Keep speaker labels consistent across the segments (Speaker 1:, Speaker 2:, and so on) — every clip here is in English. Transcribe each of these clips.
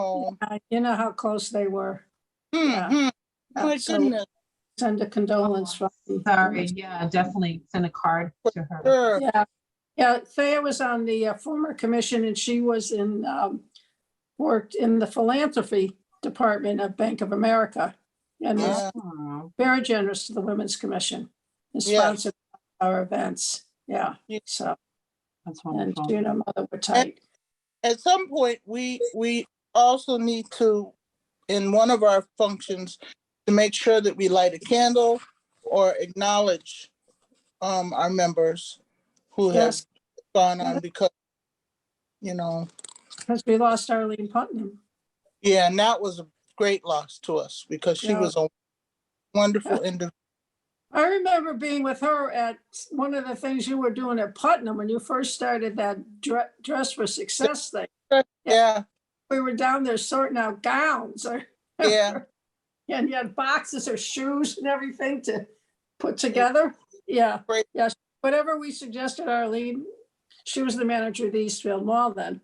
Speaker 1: Oh,
Speaker 2: Uh, You know how close they were. Yeah.
Speaker 1: mm, mm.
Speaker 2: Uh,
Speaker 1: my
Speaker 2: so
Speaker 1: goodness,
Speaker 2: Send a condolence
Speaker 3: Oh,
Speaker 2: from me.
Speaker 4: Sorry, yeah, definitely send a card to her.
Speaker 1: sure.
Speaker 2: Yeah, yeah, Thea was on the uh, former commission and she was in, um, worked in the philanthropy department of Bank of America. And was
Speaker 1: Yeah.
Speaker 4: Aw,
Speaker 2: very generous to the Women's Commission and
Speaker 1: Yeah.
Speaker 2: sponsored our events. Yeah,
Speaker 1: Yeah.
Speaker 2: so,
Speaker 4: That's
Speaker 2: and
Speaker 4: wonderful.
Speaker 2: you know, mother were tight.
Speaker 1: At some point, we, we also need to, in one of our functions, to make sure that we light a candle or acknowledge um, our members who have
Speaker 2: Yes,
Speaker 1: gone on because, you know,
Speaker 2: because we lost Arlene Putnam.
Speaker 1: yeah, and that was a great loss to us because she
Speaker 2: Yeah.
Speaker 1: was a wonderful individual.
Speaker 2: I remember being with her at one of the things you were doing at Putnam when you first started that dre- Dress for Success thing.
Speaker 1: Yeah,
Speaker 2: we were down there sorting out gowns or.
Speaker 1: Yeah.
Speaker 2: And you had boxes or shoes and everything to put together. Yeah,
Speaker 1: Right.
Speaker 2: yes, whatever we suggested, Arlene, she was the manager of the Eastfield Mall then.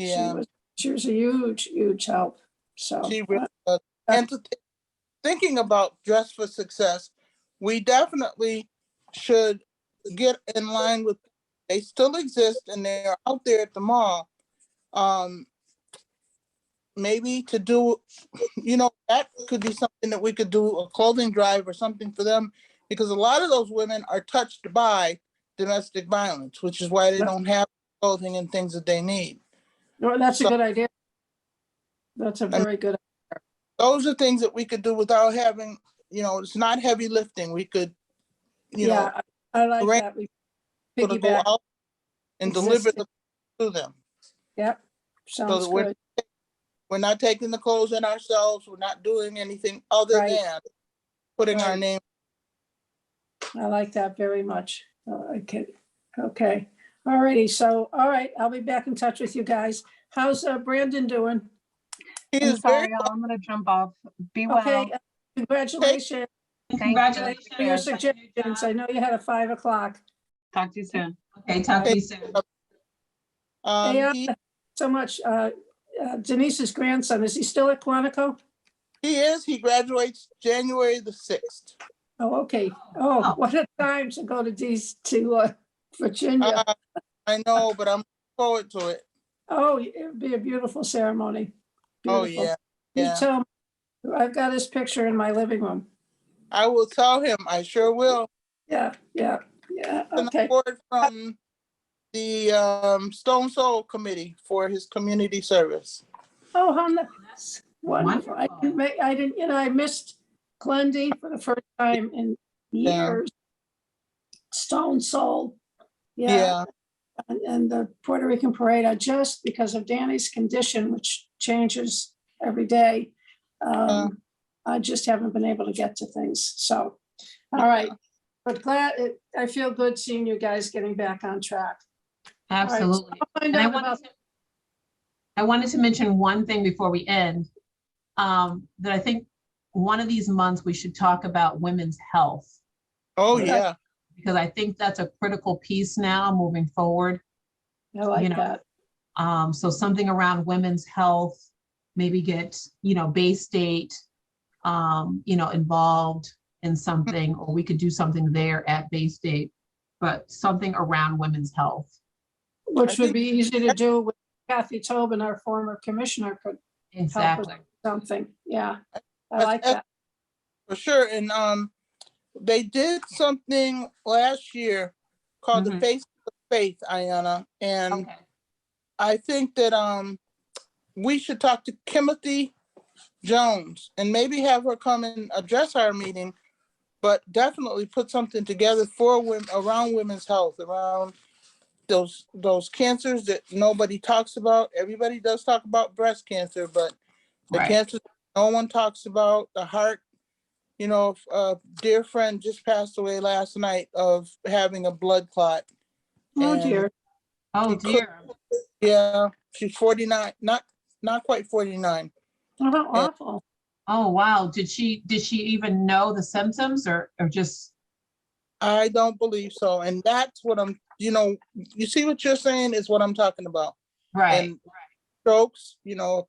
Speaker 2: She
Speaker 1: yeah.
Speaker 2: was- She was a huge, huge help, so.
Speaker 1: She
Speaker 2: uh,
Speaker 1: really does. And to thi- thinking about Dress for Success, we definitely should get in line with, they still exist and they're out there at the mall. Um, maybe to do, you know, that could be something that we could do, a clothing drive or something for them. Because a lot of those women are touched by domestic violence, which is why they
Speaker 2: Yeah.
Speaker 1: don't have clothing and things that they need.
Speaker 2: No, that's a
Speaker 1: So-
Speaker 2: good idea. That's a very good,
Speaker 1: those are things that we could do without having, you know, it's not heavy lifting. We could, you know,
Speaker 2: yeah, I I like
Speaker 1: Lorraine-
Speaker 2: that. We
Speaker 1: sort of go
Speaker 2: Piggyback,
Speaker 1: out and deliver the to them.
Speaker 2: yep, sounds
Speaker 1: that we're-
Speaker 2: good,
Speaker 1: We're not taking the clothes in ourselves. We're not doing anything other
Speaker 2: Right.
Speaker 1: than putting our
Speaker 2: Right.
Speaker 1: name.
Speaker 2: I like that very much, Uh, okay, okay. All righty, so, all right, I'll be back in touch with you guys. How's uh, Brandon doing?
Speaker 1: He
Speaker 4: I'm
Speaker 1: is very,
Speaker 4: sorry, y'all, I'm gonna jump off. Be well.
Speaker 2: Okay, uh, congratulations.
Speaker 4: Thank you.
Speaker 3: Congratulations.
Speaker 2: For your suggestions, I know you had a five o'clock.
Speaker 4: Talk to you soon.
Speaker 3: Okay, talk to you soon.
Speaker 1: um,
Speaker 2: Yeah.
Speaker 1: he,
Speaker 2: So much, uh, uh, Denise's grandson, is he still at Quantico?
Speaker 1: he is, he graduates January the sixth.
Speaker 2: Oh, okay. Oh,
Speaker 3: Oh.
Speaker 2: what a time to go to these, to uh, Virginia.
Speaker 1: Uh, I know, but I'm looking forward to it.
Speaker 2: Oh, it'd be a beautiful ceremony.
Speaker 1: Oh,
Speaker 2: Beautiful.
Speaker 1: yeah,
Speaker 2: You
Speaker 1: yeah.
Speaker 2: tell, me- I've got his picture in my living room.
Speaker 1: I will tell him, I sure will.
Speaker 2: Yeah, yeah, yeah,
Speaker 1: an
Speaker 2: okay.
Speaker 1: award from the um, Stone Soul Committee for his community service.
Speaker 2: Oh, how nice. Wonderful. I didn't
Speaker 3: Wonderful.
Speaker 2: make, I didn't, you know, I missed Glendy for the first time in
Speaker 1: Yeah.
Speaker 2: years. Stone Soul. Yeah. And, and the Puerto Rican Parade, I just because of Danny's condition, which changes every day. Um, I just haven't been able to get to things. So, all right. But glad, it- I feel good seeing you guys getting back on track. All right, so
Speaker 3: Absolutely.
Speaker 2: I'll find
Speaker 3: And I
Speaker 2: out about-
Speaker 3: wanted to, I wanted to mention one thing before we end. Um, that I think one of these months we should talk about women's health.
Speaker 1: Oh,
Speaker 3: Yeah.
Speaker 1: yeah.
Speaker 3: Because I think that's a critical piece now moving forward.
Speaker 2: I like
Speaker 3: know,
Speaker 2: that.
Speaker 3: Um, so something around women's health, maybe get, you know, Bay State, um, you know, involved in something, or we could do something there at Bay State, but something around women's health.
Speaker 2: Which
Speaker 1: think-
Speaker 2: would be easy to do with Kathy Tobin, our former commissioner, could
Speaker 3: Exactly.
Speaker 2: something, yeah. I
Speaker 1: That's
Speaker 2: like that.
Speaker 1: For sure. And um, they did something last year called the
Speaker 2: Mm-hmm.
Speaker 3: Mhm.
Speaker 1: Face of Faith, Ayana. And
Speaker 3: Okay.
Speaker 1: I think that um, we should talk to Timothy Jones and maybe have her come and address our meeting, but definitely put something together for women, around women's health, around those, those cancers that nobody talks about. Everybody does talk about breast cancer, but the
Speaker 3: Right.
Speaker 1: cancers no one talks about, the heart. You know, if a dear friend just passed away last night of having a blood clot.
Speaker 2: Oh
Speaker 1: And-
Speaker 2: dear,
Speaker 3: Oh
Speaker 1: could-
Speaker 3: dear.
Speaker 1: Yeah, she's forty-nine, not, not quite forty-nine.
Speaker 2: Oh, how awful.
Speaker 3: Oh, wow. Did she, did she even know the symptoms or, or just,
Speaker 1: I don't believe so, and that's what I'm, you know, you see what you're saying is what I'm talking about.
Speaker 3: right?
Speaker 1: And strokes, you know,